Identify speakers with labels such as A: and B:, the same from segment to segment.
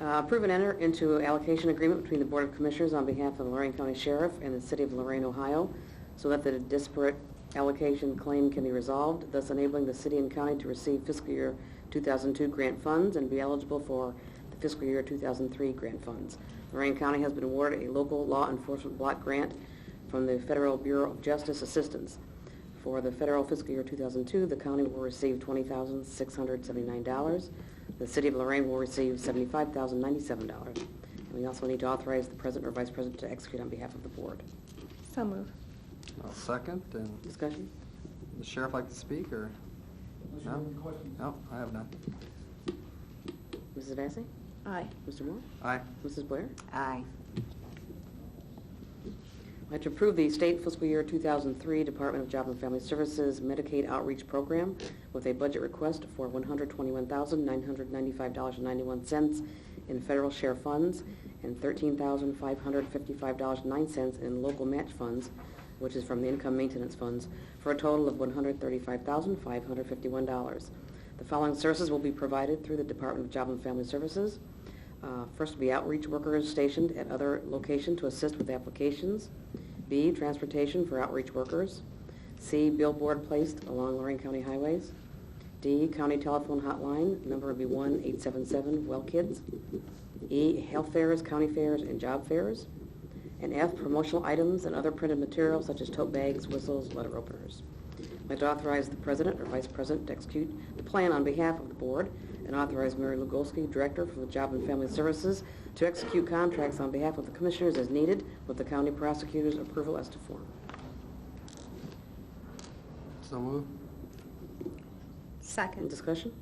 A: Uh, Approve and enter into allocation agreement between the Board of Commissioners on behalf of Lorraine County Sheriff and the City of Lorraine, Ohio, so that the disparate allocation claim can be resolved, thus enabling the city and county to receive fiscal year 2002 grant funds and be eligible for the fiscal year 2003 grant funds. Lorraine County has been awarded a local law enforcement block grant from the Federal Bureau of Justice Assistance. For the federal fiscal year 2002, the county will receive $20,679. The city of Lorraine will receive $75,097. And we also need to authorize the president or vice president to execute on behalf of the board.
B: So move.
C: I'll second, and
A: Discussion?
C: the sheriff like to speak, or?
D: Unless you
C: No?
D: have any questions.
C: No, I have none.
A: Mrs. Vacy?
B: Aye.
A: Mr. Moore?
C: Aye.
A: Mrs. Blair?
B: Aye.
A: I'd like to approve the state fiscal year 2003 Department of Job and Family Services Medicaid Outreach Program with a budget request for $121,995.91 in federal share funds and $13,555.09 in local match funds, which is from the income maintenance funds, for a total of $135,551. The following services will be provided through the Department of Job and Family Services. Uh, First, be outreach workers stationed at other location to assist with applications. B, transportation for outreach workers. C, billboard placed along Lorraine County highways. D, county telephone hotline, number would be 1-877-WELL-KIDS. E, health fairs, county fairs, and job fairs. And F, promotional items and other printed materials such as tote bags, whistles, letter openers. I'd like to authorize the president or vice president to execute the plan on behalf of the board and authorize Mary Lugolsky, director for the Job and Family Services, to execute contracts on behalf of the commissioners as needed with the county prosecutor's approval as to form.
C: So move.
A: Any
B: Second.
A: discussion?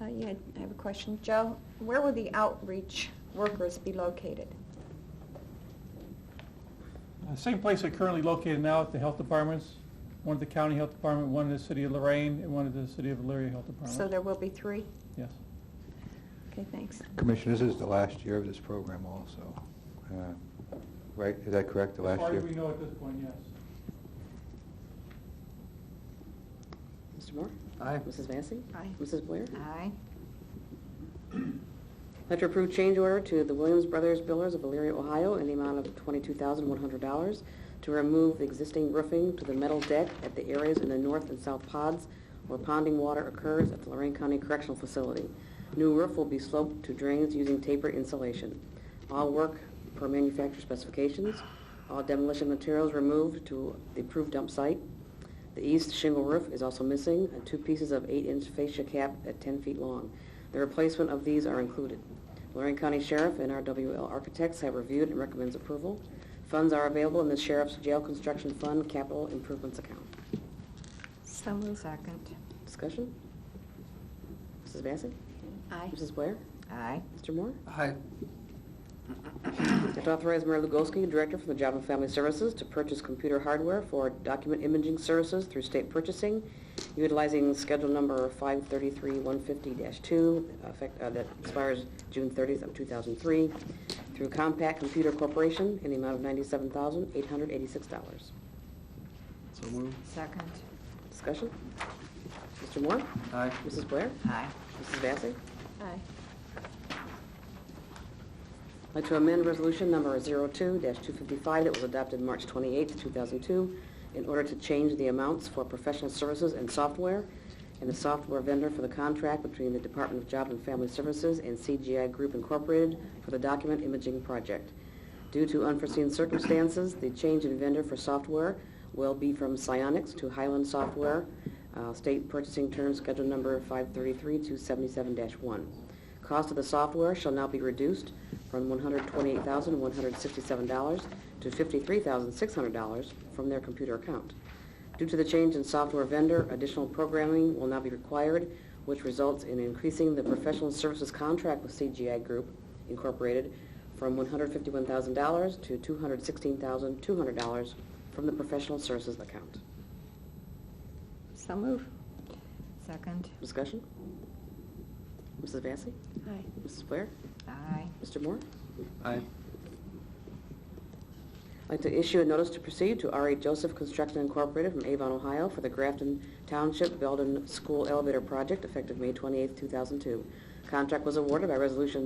B: Uh, yeah, I have a question. Joe, where will the outreach workers be located?
E: Uh, Same place they're currently located now at the health departments, one at the county health department, one at the city of Lorraine, and one at the city of Elyria Health
B: So
E: Department.
B: there will be three?
E: Yes.
B: Okay, thanks.
F: Commissioner, this is the last year of this program also, uh, right? Is that correct, the
E: As
F: last
E: far
F: year?
E: as we know at this point, yes.
A: Mr. Moore?
C: Aye.
A: Mrs. Vacy?
B: Aye.
A: Mrs. Blair?
B: Aye.
A: Let to approve change order to the Williams Brothers Builders of Elyria, Ohio, in the amount of $22,100 to remove the existing roofing to the metal deck at the areas in the north and south pods where ponding water occurs at the Lorraine County Correctional Facility. New roof will be sloped to drains using taper insulation. All work per manufacturer specifications. All demolition materials removed to the approved dump site. The east shingle roof is also missing, and two pieces of 8-inch fascia cap at 10 feet long. The replacement of these are included. Lorraine County Sheriff and RWL Architects have reviewed and recommends approval. Funds are available in the Sheriff's Jail Construction Fund Capital Improvements Account.
B: So move. Second.
A: Discussion? Mrs. Vacy?
B: Aye.
A: Mrs. Blair?
B: Aye.
A: Mr. Moore?
C: Aye.
A: And to authorize Mayor Lugolsky, Director for the Job and Family Services, to purchase computer hardware for document imaging services through state purchasing, utilizing Schedule Number 533-150-2, effect- uh, that expires June 30th of 2003, through Compact Computer Corporation in the amount of $97,886.
C: So move.
B: Second.
A: Discussion? Mr. Moore?
C: Aye.
A: Mrs. Blair?
B: Aye.
A: Mrs. Vacy?
B: Aye.
A: I'd like to amend Resolution Number 02-255 that was adopted March 28, 2002, in order to change the amounts for professional services and software and the software vendor for the contract between the Department of Job and Family Services and CGI Group Incorporated for the document imaging project. Due to unforeseen circumstances, the change in vendor for software will be from Psyonix to Highland Software, uh, State Purchasing Terms Schedule Number 533-277-1. Cost of the software shall now be reduced from $128,167 to $53,600 from their computer account. Due to the change in software vendor, additional programming will now be required, which results in increasing the professional services contract with CGI Group Incorporated from $151,000 to $216,200 from the professional services account.
B: So move. Second.
A: Discussion? Mrs. Vacy?
B: Aye.
A: Mrs. Blair?
B: Aye.
A: Mr. Moore?
C: Aye.
A: I'd like to issue a notice to proceed to R.A. Joseph Construction Incorporated from Avon, Ohio for the Grafton Township Belden School Elevator Project effective May 28, 2002. Contract was awarded by Resolution